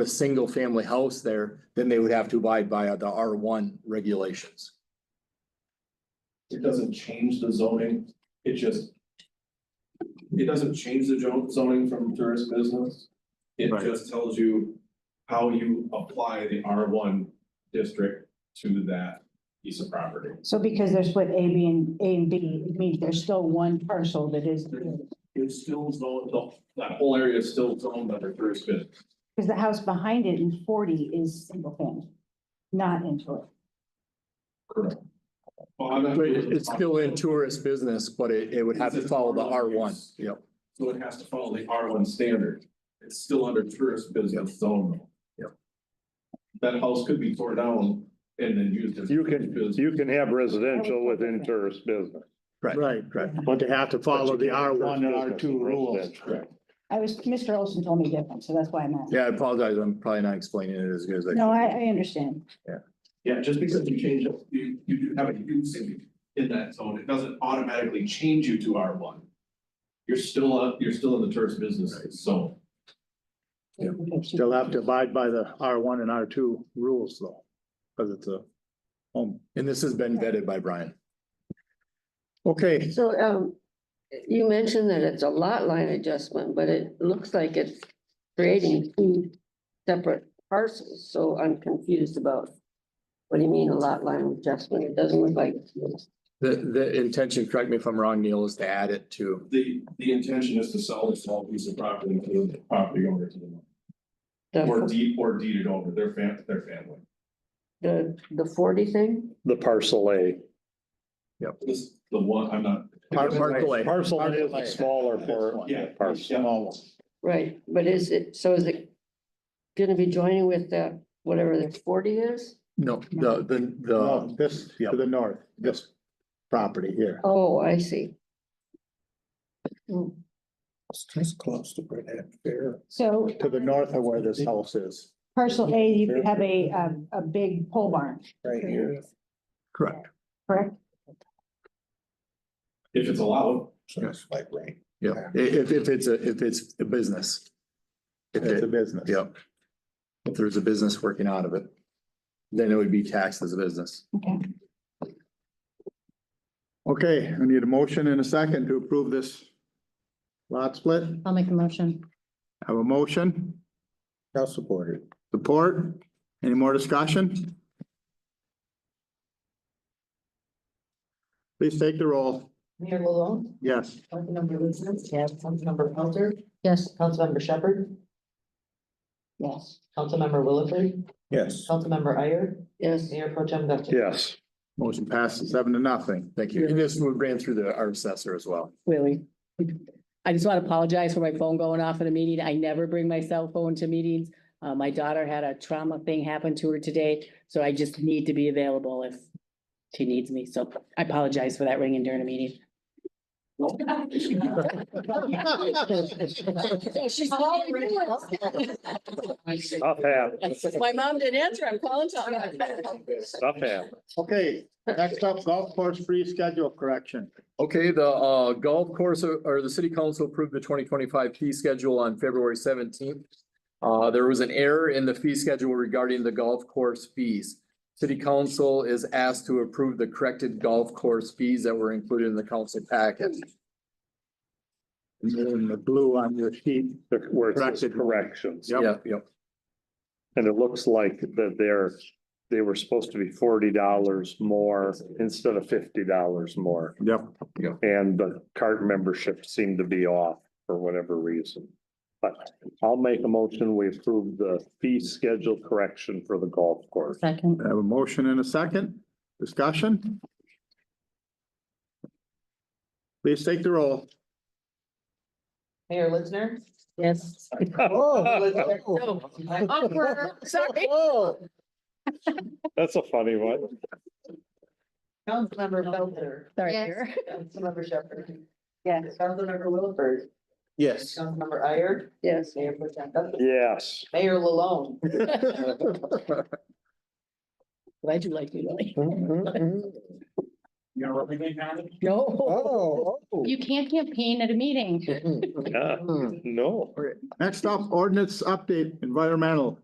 a single family house there, then they would have to abide by the R one regulations. It doesn't change the zoning, it just. It doesn't change the jo- zoning from tourist business. It Right. just tells you how you apply the R one district to that piece of property. So because they're split A, B and A and B, it means there's still one parcel that is, because It's still zoned, the- that whole area is still zoned under tourist business. the house behind it in forty is single family. Not into it. Correct. Well, I'm not- But it- it's still in tourist business, but it, it would have to follow the R one, yep. So it has to follow the R one standard. It's still under tourist business zone. though. Yep. That house could be torn down and then used as. You can, business. you can have residential within tourist business. Right, Correct. but they have to follow the R one and R two rules. Residential. I was, Mr. Olson told me different, so that's why I'm asking. Yeah, I apologize, I'm probably not explaining it as good as I. No, I, I understand. Yeah, just because you change it, you, you do have a usage in that zone, it doesn't automatically change you to R one. You're still up, you're still in the tourist business zone. Yeah. They'll have to abide by the R one and R two rules though, because it's a home. And this has been vetted by Brian. Okay, So, um, you mentioned that it's a lot line adjustment, but it looks like it's creating two separate parcels, so I'm confused about. What do you mean a lot line adjustment? It doesn't look like, The, the intention, correct me if I'm wrong, Neil, is to add it to, The, the intention is to sell this small piece of property to the property owner to the, or the, deed, or deed it over, their fam, their family. the, the forty thing? The parcel A. This, the one, I'm not. Par- parcel A. Parcel A is the smaller for. Yeah. parcel. Right, but is it, so is it gonna be joining with the, whatever the forty is? no, the, the, No, the, this to the north, this property here. Oh, I see. It's close to Brett Fair. So To the north of where this house is. parcel A, you could have a, um, a big pole barn, Right here. correct. correct? If it's allowed, So it's like right. Yeah, I- if, if it's a, if it's a business. If It's a it, business. yep. If there's a business working out of it, then it would be taxed as a business. Okay. Okay, I need a motion and a second to approve this lot split. I'll make a motion. Have a motion? I'll support it. Support? Any more discussion? Please take the roll. Mayor Malone, Yes. Councilmember Lizinsky, yes, Councilmember Pelter, Yes, Councilmember Shepherd, Yes. Councilmember Williford, Yes. Councilmember Iyer, Yes, Mayor Pro Tem Duncan. Yes, Motion passes seven to nothing. Thank you. And this ran through the, our assessor as well. Really. I just want to apologize for my phone going off in a meeting. I never bring my cell phone to meetings. Uh, my daughter had a trauma thing happen to her today, so I just need to be available if she needs me. So I apologize for that ringing during a meeting. stuff happens, My mom didn't answer. I'm calling Tom. stuff happens. Okay, next up, golf course fee schedule correction. Okay, the uh golf course or or the city council approved the twenty twenty-five fee schedule on February seventeenth. Uh, there was an error in the fee schedule regarding the golf course fees. City council is asked to approve the corrected golf course fees that were included in the council packet. And then the blue on your sheet. The- Where it says Corrected. corrections. Yeah, Yep. And it looks like that they're, they were supposed to be forty dollars more instead of fifty dollars more. Yep. And the cart membership seemed to be off for whatever reason. But I'll make a motion, we approve the fee schedule correction for the golf course. second. I have a motion and a second. Discussion? Please take the roll. Mayor Litzner. Yes. Awkward, sorry. That's a funny one. Councilmember Pelter, Sorry. Yes. Kara. Councilmember Shepherd. Yes. Councilmember Williford, Yes. Councilmember Iyer, yes. Mayor Pro Tem Duncan. Yes. Mayor Malone. Glad you like me, Lily. you know, what I mean, Adam? No. You can't campaign at a meeting. Oh, Yeah. No. Next up, ordinance update, environmental.